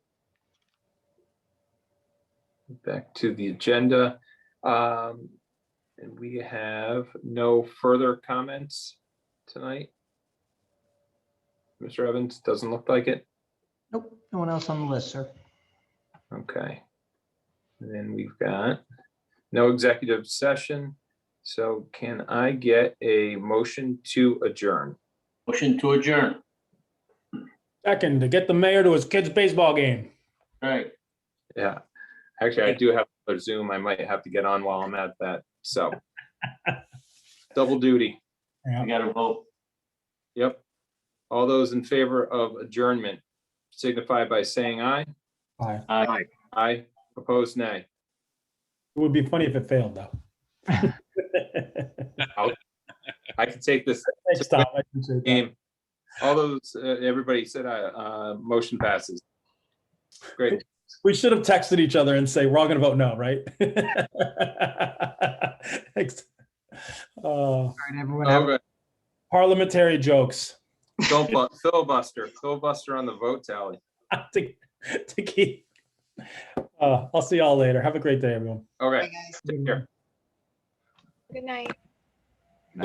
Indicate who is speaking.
Speaker 1: back to the agenda. Um, And we have no further comments tonight. Mr. Evans, doesn't look like it.
Speaker 2: Nope, no one else on the list, sir.
Speaker 1: Okay. And then we've got no executive session. So can I get a motion to adjourn?
Speaker 3: Motion to adjourn.
Speaker 4: Second, to get the mayor to his kid's baseball game.
Speaker 3: All right.
Speaker 1: Yeah. Actually, I do have a Zoom. I might have to get on while I'm at that. So double duty.
Speaker 3: I got to vote.
Speaker 1: Yep. All those in favor of adjournment signify by saying aye.
Speaker 4: It
Speaker 3: Aye.
Speaker 1: Aye. Opposed, nay.
Speaker 4: would be funny if it failed, though.
Speaker 1: I can take this
Speaker 4: Thanks, Tom. I appreciate that.
Speaker 1: game. All those, uh, everybody said aye, uh, motion passes. Great.
Speaker 4: We should have texted each other and say, we're all gonna vote no, right? Thanks. Uh,
Speaker 2: All right, everyone. have a-
Speaker 1: Okay.
Speaker 4: Parliamentary jokes
Speaker 1: Don't bu- filibuster, filibuster on the vote tally.
Speaker 4: to to keep. Uh, I'll see y'all later. Have a great day, everyone.
Speaker 1: Okay, take care.
Speaker 5: Good night.